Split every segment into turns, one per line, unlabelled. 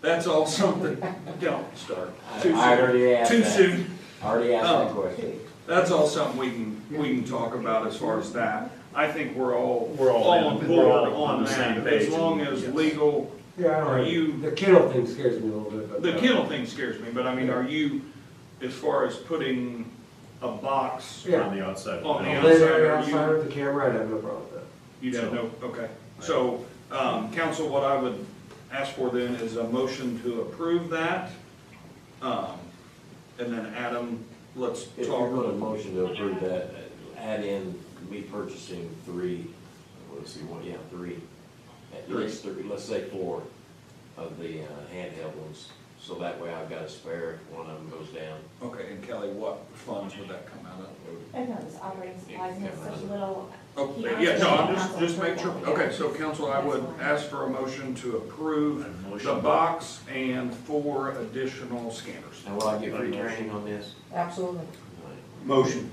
That's all something, don't start too
I
soon.
already asked
Too
that.
soon.
Already asked that
Oh.
question.
That's all something we can, we can talk about as far as that. I think we're all,
We're all
all
in.
on
We're
board
all on
on
the same
that, as
page.
long as
Yes.
legal,
Yeah, I don't
Are
know.
you-
The kennel thing scares me a little bit, but. uh,
the kennel thing scares me, but I mean, are you, as far as putting a box,
Yeah.
on the outside.
On the
Lay there
outside,
outside of the camera, I'd have no problem with that.
you'd have no, okay. So, um, council, what I would ask for then is a motion to approve that. Um, and then Adam, let's
If you're
talk,
going to motion to approve that, add in me purchasing three, let's see, one, yeah, three. At
Three.
least three, let's say four of the uh, handheld ones, so that way I've got a spare if one of them goes down.
okay, and Kelly, what funds would that come out of?
I know, this operating supplies, and it's such little.
Oh,
He
yeah,
asked
no,
me
I'm
to
just,
ask
just
for
make sure,
that.
okay, so council, I would
That's fine.
ask for a motion to approve
A motion.
the box and four additional scanners.
And will I get free training on this?
Absolutely.
Motion.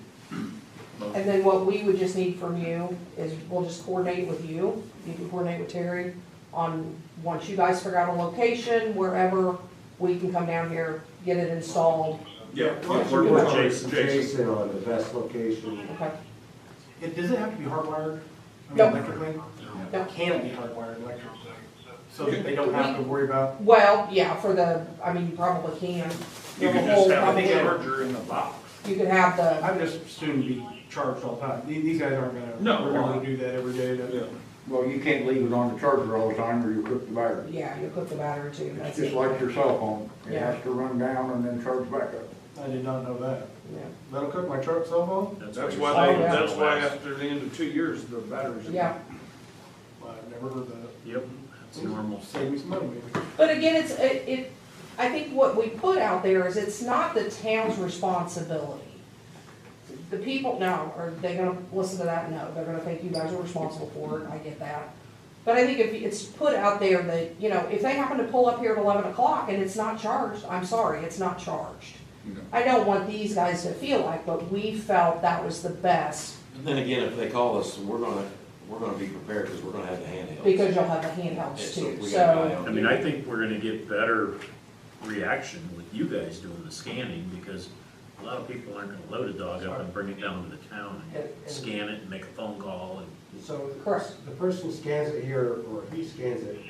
And then what we would just need from you is we'll just coordinate with you, you can coordinate with Terry on, once you guys figure out a location, wherever, we can come down here, get it installed.
Yeah.
Work
We're
with
talking
Jason.
to Jason on the best location.
Okay,
It, does it have to be hardwired? I mean,
No.
electrically?
No.
Can it be hardwired electrically? So that they don't have to worry about,
well, yeah, for the, I mean, you probably can.
You
The
can
whole-
just have a
probably-
charger in the box.
You could have the,
I'm just assumed to be charged all the time. These, these guys aren't gonna,
No.
we're gonna do that every day. to-
Well, you can't leave it on the charger all the time or you'll cook the battery.
yeah, you put the battery too,
It's
that's
just
it.
like your cell phone. It
Yeah.
has to run down and then charge back up.
I did not know that.
Yeah.
That'll cook my truck cell phone?
That's why, they-
Oh, yeah.
that's why after the end of two years, the batteries. are-
Yeah,
Well, I've never heard that.
Yep, that's normal.
Save me some money maybe.
but again, it's, it, it, I think what we put out there is it's not the town's responsibility. The people, now are they gonna listen to that? No, they're gonna think you guys are responsible for it, I get that. But I think if it's put out there that, you know, if they happen to pull up here at eleven o'clock and it's not charged, I'm sorry, it's not charged.
No.
I don't want these guys to feel like, but we felt that was the best,
And then again, if they call us, we're gonna, we're gonna be prepared because we're gonna have the handheld.
because you'll have the handhelds too, so.
I mean, I think we're gonna get better reaction with you guys doing the scanning, because a lot of people aren't gonna load a dog up and bring it down to the town and scan it and make a phone call and.
So
Correct.
the person scans it here, or he scans it,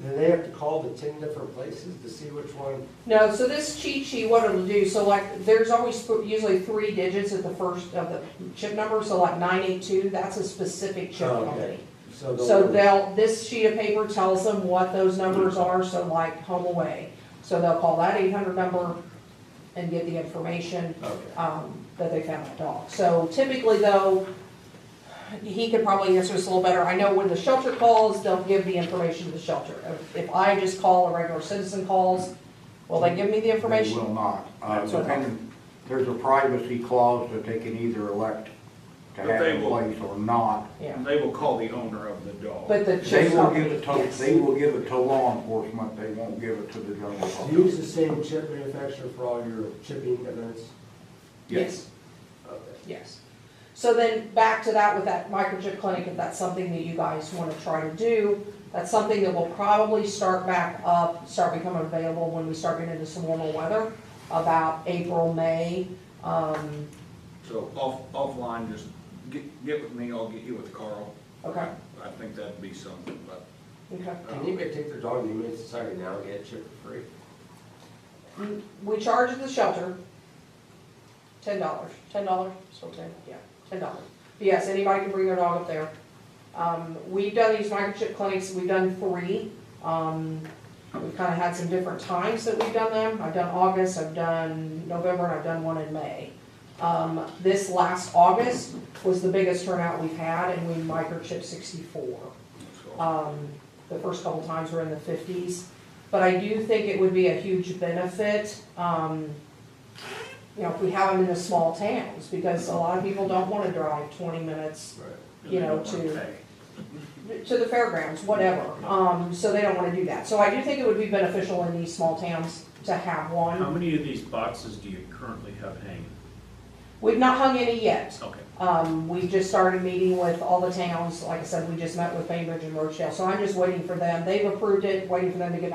then they have to call the ten different places to see which one.
No, so this cheat sheet, what it'll do, so like, there's always th- usually three digits at the first of the chip number, so like nine eight two, that's a specific chip
Oh, okay.
company.
So
So
they'll-
they'll, this sheet of paper tells them what those numbers
Mm-hmm.
are, so like home away. So they'll call that eight hundred number and get the information,
Okay.
um, that they found that dog. So typically though, he could probably answer this a little better. I know when the shelter calls, they'll give the information to the shelter. If- If I just call, a regular citizen calls, will they give me the
They
information?
will not. Uh,
That's what I-
depending, there's a privacy clause that they can either elect to
But
have
they
in
will-
place or not.
Yeah,
And they will call the owner of the dog.
but the
They
chip
will
company,
give it to,
yes.
they will give it to law enforcement, they won't give it to the general
Do
public.
you use the same chip manufacturer for all your chipping events?
Yes,
Okay.
yes. So then, back to that with that microchip clinic, if that's something that you guys want to try to do, that's something that will probably start back up, start becoming available when we start getting into some warmer weather, about April, May. Um,
So off, offline, just get, get with me, I'll get you with Carl.
okay,
I think that'd be something, but.
okay.
uh,
Can anybody take their dog to the Humane Society now and get it chipped for free?
We charge at the shelter ten dollars, ten dollars, still ten, yeah, ten dollars. Yes, anybody can bring their dog up there. Um, we've done these microchip clinics, we've done three. Um, we've kind of had some different times that we've done them. I've done August, I've done November, and I've done one in May. Um, this last August was the biggest turnout we've had, and we microchipped sixty-four.
so-
Um, the first couple times were in the fifties, but I do think it would be a huge benefit, um, you know, if we have them in the small towns, because a lot of people don't wanna drive twenty minutes You know, to- to the fairgrounds, whatever, um, so they don't wanna do that. So I do think it would be beneficial in these small towns to have
How
one.
many of these boxes do you currently have hanging?
We've not hung any yet.
Okay.
Um, we just started meeting with all the towns, like I said, we just met with Bainbridge and Rochdale, so I'm just waiting for them. They've approved it, waiting for them to get